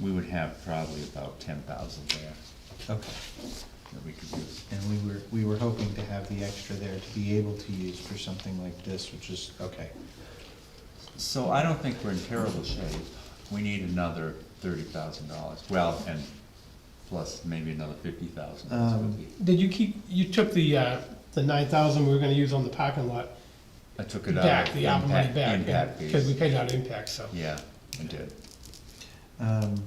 we would have probably about ten thousand there Okay, that we could use. and we were, we were hoping to have the extra there to be able to use for something like this, which is, okay. So I don't think we're in terrible shape. We need another thirty thousand dollars, well, and plus maybe another fifty thousand. Um, Did you keep, you took the, uh, the nine thousand we were gonna use on the parking lot I took it out. back, of the ARPA money impact- back, Impact because we fees. paid out impact, so. Yeah, I did. Um,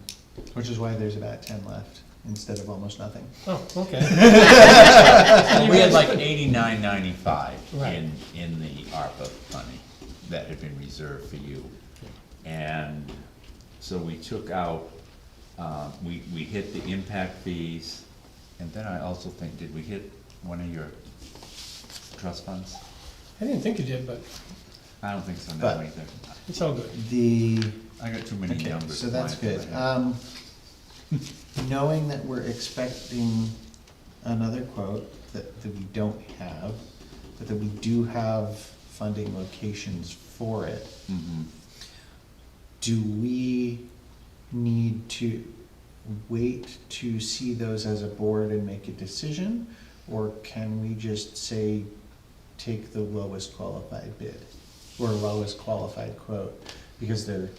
which is why there's about ten left instead of almost nothing. Oh, okay. We had like eighty-nine ninety-five Right. in, in the ARPA money that had been reserved for you. And so we took out, um, we, we hit the impact fees, and then I also think, did we hit one of your trust funds? I didn't think you did, but I don't think so now But- either. it's all good. The, I got too many okay, numbers. so that's lined up good. in my head. Um, knowing that we're expecting another quote that, that we don't have, but that we do have funding locations for it, Mhm. do we need to wait to see those as a board and make a decision? Or can we just say, take the lowest qualified bid, or lowest qualified quote? Because they're,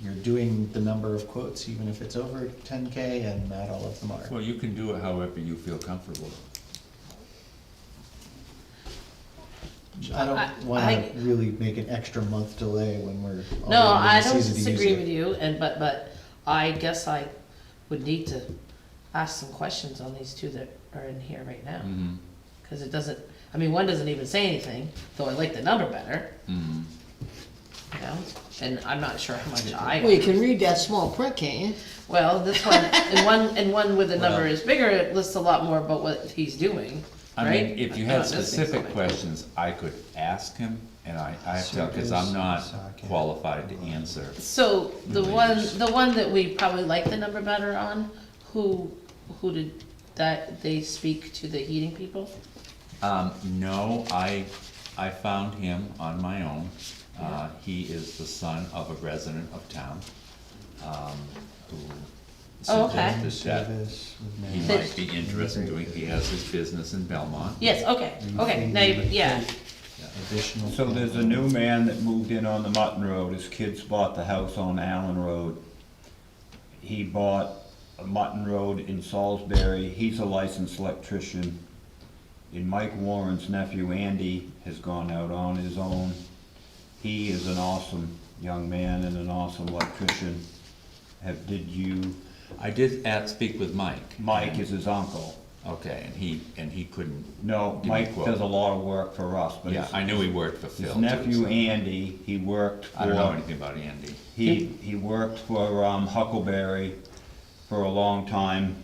you're doing the number of quotes, even if it's over ten K and not all of them are. Well, you can do it however you feel comfortable. I I- don't wanna I- really make an extra month delay when we're No, I already don't in the season to use disagree with it. you, and, but, but I guess I would need to ask some questions on these two that are in here right now. Mm-hmm. Cause it doesn't, I mean, one doesn't even say anything, though I like the number better, Mm-hmm. you know, and I'm not sure how much Well, you I, can read that small print, can't you? well, this one, and one, and one with the number Well- is bigger, it lists a lot more about what he's doing, I right? mean, if you I'm had not missing specific something. questions, I could ask him, and I, I have to, because I'm not Circus, qualified to socket. answer. So, the Maybe one, just- the one that we probably like the number better on, who, who did that, they speak to the heating people? Um, no, I, I found him on my own. Uh, he is the son of a resident of town, um, who Oh, okay. suggested that Service with he no- might be interested in doing, he has his business in Belmont. Yes, okay, okay, now, you- yeah, Additional. So there's a new man that moved in on the Mutton Road, his kids bought the house on Allen Road. He bought a Mutton Road in Salisbury, he's a licensed electrician. And Mike Warren's nephew Andy has gone out on his own. He is an awesome young man and an awesome electrician. Have, did you, I did at, speak with Mike. Mike is his uncle. Okay, and he, and he couldn't, No, Give me a Mike quote. does a lot of work for us, but yeah, his- I knew he worked for Phil his too. nephew so- Andy, he worked for. I don't know anything about Andy. He, he worked for um, Huckleberry for a long time,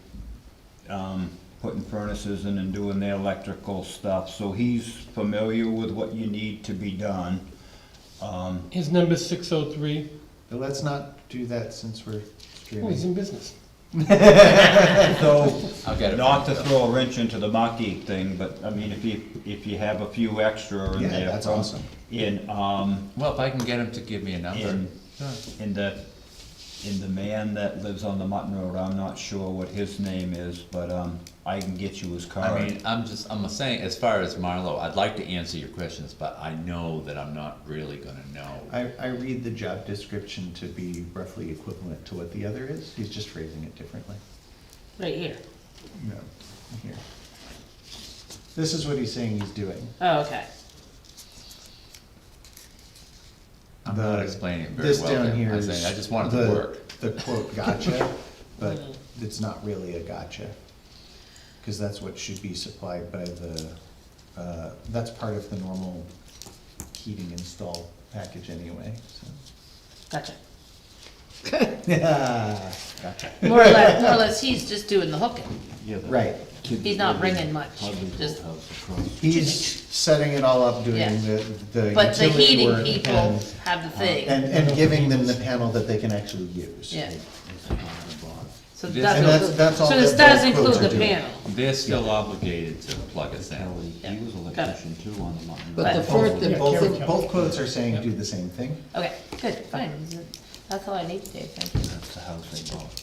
um, putting furnaces in and doing the electrical stuff, so he's familiar with what you need to be done. Um, His number's six oh three, But let's not do that since we're oh, he's streaming. in business. So, I'll get it not to from throw a wrench into the Maki thing, but, I mean, if you, if you have a few extra in Yeah, there. that's from- awesome. In, um, Well, if I can get him to give me a number. in, in the, in the man that lives on the Mutton Road, I'm not sure what his name is, but, um, I can get you his card. I mean, I'm just, I'm saying, as far as Marlowe, I'd like to answer your questions, but I know that I'm not really gonna know. I, I read the job description to be roughly equivalent to what the other is, he's just phrasing it differently. right here, No. Here. This is what he's saying he's doing. oh, okay, I'm not The- explaining it very well. This down there. here I'm is. saying, I just want it to the- work. The quote gotcha, but Mhm. it's not really a gotcha. Cause that's what should be supplied by the, uh, that's part of the normal heating install package anyway, so. gotcha. Yeah, gotcha. More or less, more or less, he's just doing the hooking, Right. he's not bringing much, just, He's setting it all up, Yeah. doing the, the but the utility heating work people and, uh, have the and, thing, and giving them the panel that they can actually use. yeah. So This- that's, And that's- include- that's all so this that does both include quotes are the doing. panel, They're still obligated to plug us in. Yeah, He was an got it. electrician too on the Mutton Road. But the But- first, Yeah, the Both, Karen- both, both quotes are saying do the same thing. okay, good, fine, that's all I need today, thank you. That's the house they bought.